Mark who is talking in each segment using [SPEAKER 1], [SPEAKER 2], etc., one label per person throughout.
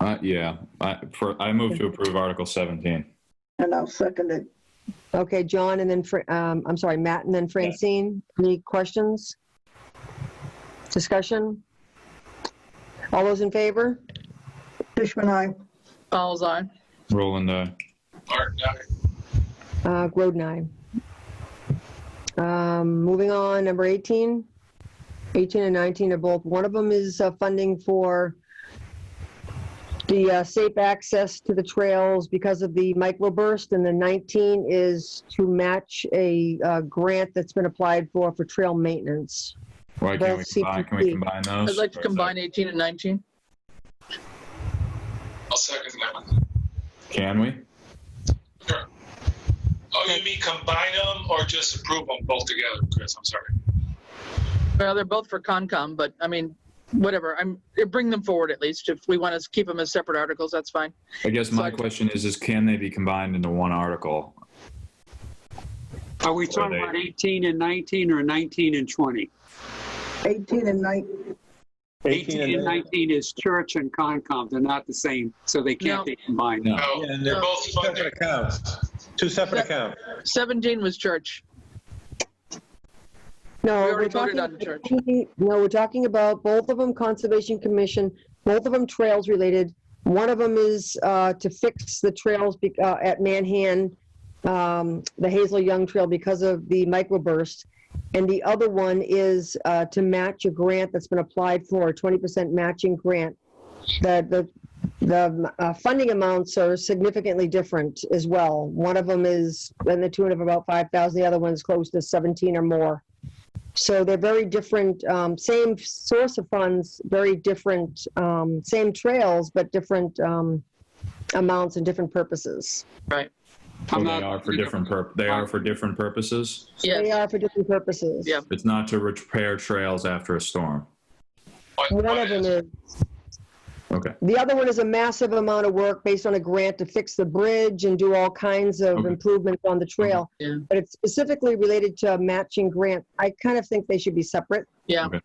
[SPEAKER 1] Uh, yeah, I, for, I move to approve Article 17.
[SPEAKER 2] and I'll second it.
[SPEAKER 3] Okay, John, and then, Fra- um, I'm sorry, Matt, and then Francine. Any questions? Discussion? All those in favor?
[SPEAKER 2] Fishman, aye.
[SPEAKER 4] Falls on.
[SPEAKER 1] Roland, aye.
[SPEAKER 3] Uh, Groden, aye. Um, moving on, number 18. 18 and 19 are both, one of them is uh, funding for the uh, safe access to the trails because of the microburst, and the 19 is to match a uh, grant that's been applied for, for trail maintenance.
[SPEAKER 1] Why can't we
[SPEAKER 3] Both
[SPEAKER 1] combine, can we
[SPEAKER 3] CPP.
[SPEAKER 1] combine those?
[SPEAKER 4] I'd like to combine 18 and 19.
[SPEAKER 5] I'll second that one.
[SPEAKER 1] Can we?
[SPEAKER 5] Sure. Oh, you mean combine them or just approve them both together, Chris? I'm sorry.
[SPEAKER 4] Well, they're both for Concom, but I mean, whatever. I'm, bring them forward at least. If we want to keep them as separate articles, that's fine.
[SPEAKER 1] I guess my
[SPEAKER 4] Sorry.
[SPEAKER 1] question is, is can they be combined into one article?
[SPEAKER 6] Are we talking
[SPEAKER 1] they-
[SPEAKER 6] about 18 and 19 or 19 and 20?
[SPEAKER 2] 18 and 19,
[SPEAKER 6] 18 and 19 is church and Concom, they're not the same, so they
[SPEAKER 4] No.
[SPEAKER 6] can't be combined.
[SPEAKER 1] No.
[SPEAKER 5] No,
[SPEAKER 7] Yeah, and
[SPEAKER 5] Oh, they're
[SPEAKER 7] they're
[SPEAKER 5] both
[SPEAKER 7] two
[SPEAKER 5] funded.
[SPEAKER 7] separate accounts, two separate accounts.
[SPEAKER 4] 17 was church.
[SPEAKER 3] No,
[SPEAKER 4] We
[SPEAKER 3] we're
[SPEAKER 4] already
[SPEAKER 3] talking.
[SPEAKER 4] voted on the church.
[SPEAKER 3] No, we're talking about both of them Conservation Commission, both of them trails related. One of them is uh, to fix the trails be- uh, at Manhan, um, the Hazel Young Trail because of the microburst. And the other one is uh, to match a grant that's been applied for, a 20% matching grant. The, the the uh, funding amounts are significantly different as well. One of them is in the tune of about 5,000, the other one's close to 17 or more. So they're very different, um, same source of funds, very different, um, same trails, but different, um, amounts and different purposes.
[SPEAKER 1] Well, they
[SPEAKER 6] I'm not-
[SPEAKER 1] are for different purp, they are for different purposes?
[SPEAKER 3] They
[SPEAKER 4] Yes.
[SPEAKER 3] are for different purposes.
[SPEAKER 4] Yeah.
[SPEAKER 1] It's not to repair trails after a storm.
[SPEAKER 5] What-
[SPEAKER 3] One
[SPEAKER 5] what
[SPEAKER 3] of them
[SPEAKER 5] is-
[SPEAKER 3] is,
[SPEAKER 1] Okay,
[SPEAKER 3] the other one is a massive amount of work based on a grant to fix the bridge and do all kinds of
[SPEAKER 1] Okay.
[SPEAKER 3] improvements on the trail.
[SPEAKER 4] Yeah.
[SPEAKER 3] But it's specifically related to a matching grant. I kind of think they should be separate.
[SPEAKER 4] I'd,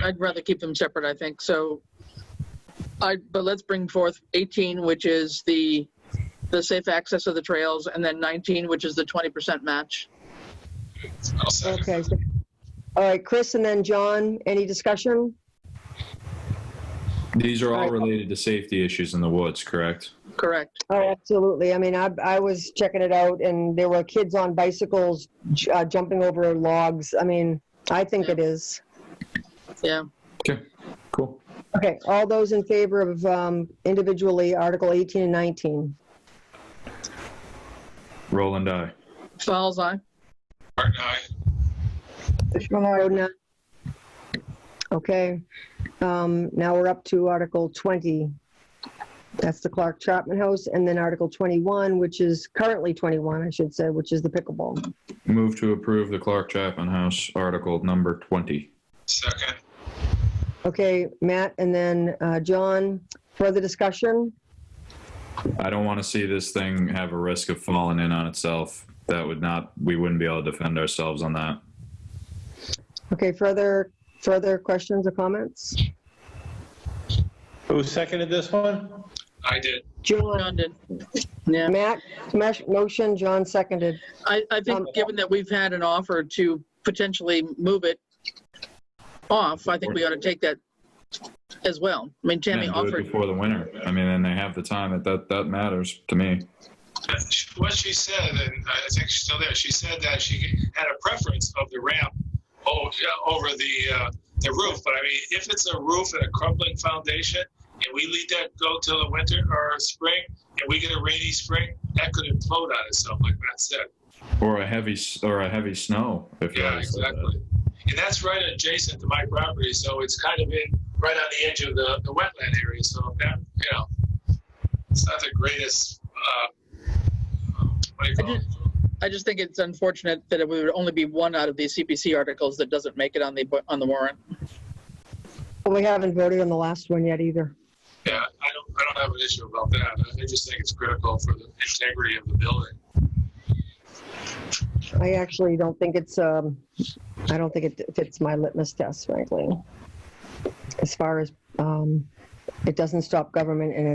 [SPEAKER 4] I'd rather keep them separate, I think. So I, but let's bring forth 18, which is the, the safe access of the trails, and then 19, which is the 20% match.
[SPEAKER 5] I'll second
[SPEAKER 3] Okay.
[SPEAKER 5] that.
[SPEAKER 3] so- All right, Chris and then John, any discussion?
[SPEAKER 1] these are all
[SPEAKER 3] Alright.
[SPEAKER 1] related to safety issues in the woods, correct?
[SPEAKER 4] Correct.
[SPEAKER 3] Oh, absolutely. I mean, I, I was checking it out and there were kids on bicycles j- uh, jumping over logs. I mean, I think it is.
[SPEAKER 4] Yeah.
[SPEAKER 1] Cool.
[SPEAKER 3] Okay, all those in favor of um, individually Article 18 and 19?
[SPEAKER 1] Roland, aye.
[SPEAKER 4] Falls on.
[SPEAKER 5] Art and I.
[SPEAKER 2] Fishman, aye.
[SPEAKER 3] Bowden, aye. Okay, um, now we're up to Article 20. That's the Clark Chapman House, and then Article 21, which is currently 21, I should say, which is the pickleball.
[SPEAKER 1] Move to approve the Clark Chapman House Article Number 20.
[SPEAKER 5] Second.
[SPEAKER 3] Okay, Matt, and then uh, John, further discussion?
[SPEAKER 1] I don't want to see this thing have a risk of falling in on itself. That would not, we wouldn't be able to defend ourselves on that.
[SPEAKER 3] Okay, further, further questions or comments?
[SPEAKER 7] Who seconded this one?
[SPEAKER 5] I did.
[SPEAKER 3] John,
[SPEAKER 4] John did. Yeah.
[SPEAKER 3] Matt, smash- motion, John seconded.
[SPEAKER 4] I, I
[SPEAKER 3] Um,
[SPEAKER 4] think, given that we've had an offer to potentially move it off, I think we ought to take that as well. I mean, Tammy
[SPEAKER 1] And do it
[SPEAKER 4] offered,
[SPEAKER 1] Before the winter. I mean, and they have the time. That, that, that matters to me.
[SPEAKER 5] What she said, and I think she's still there, she said that she had a preference of the ramp o- over the, uh, the roof. But I mean, if it's a roof and a crumbling foundation, and we let that go till the winter or spring, and we get a rainy spring, that could implode on itself, like Matt said.
[SPEAKER 1] Or a heavy, s- or a heavy snow. if you
[SPEAKER 5] Yeah,
[SPEAKER 1] always said that.
[SPEAKER 5] exactly. And that's right adjacent to my property, so it's kind of in, right on the edge of the, the wetland area, so that, you know, it's not the greatest, uh, what do you call it?
[SPEAKER 4] I just think it's unfortunate that it would only be one out of these CPC articles that doesn't make it on the, bu- on the warrant.
[SPEAKER 3] Well, We haven't voted on the last one yet either.
[SPEAKER 5] Yeah, I don't, I don't have an issue about that. I just think it's critical for the integrity of the building.
[SPEAKER 3] I actually don't think it's, um, I don't think it fits my litmus test, frankly. As far as, um, it doesn't stop government and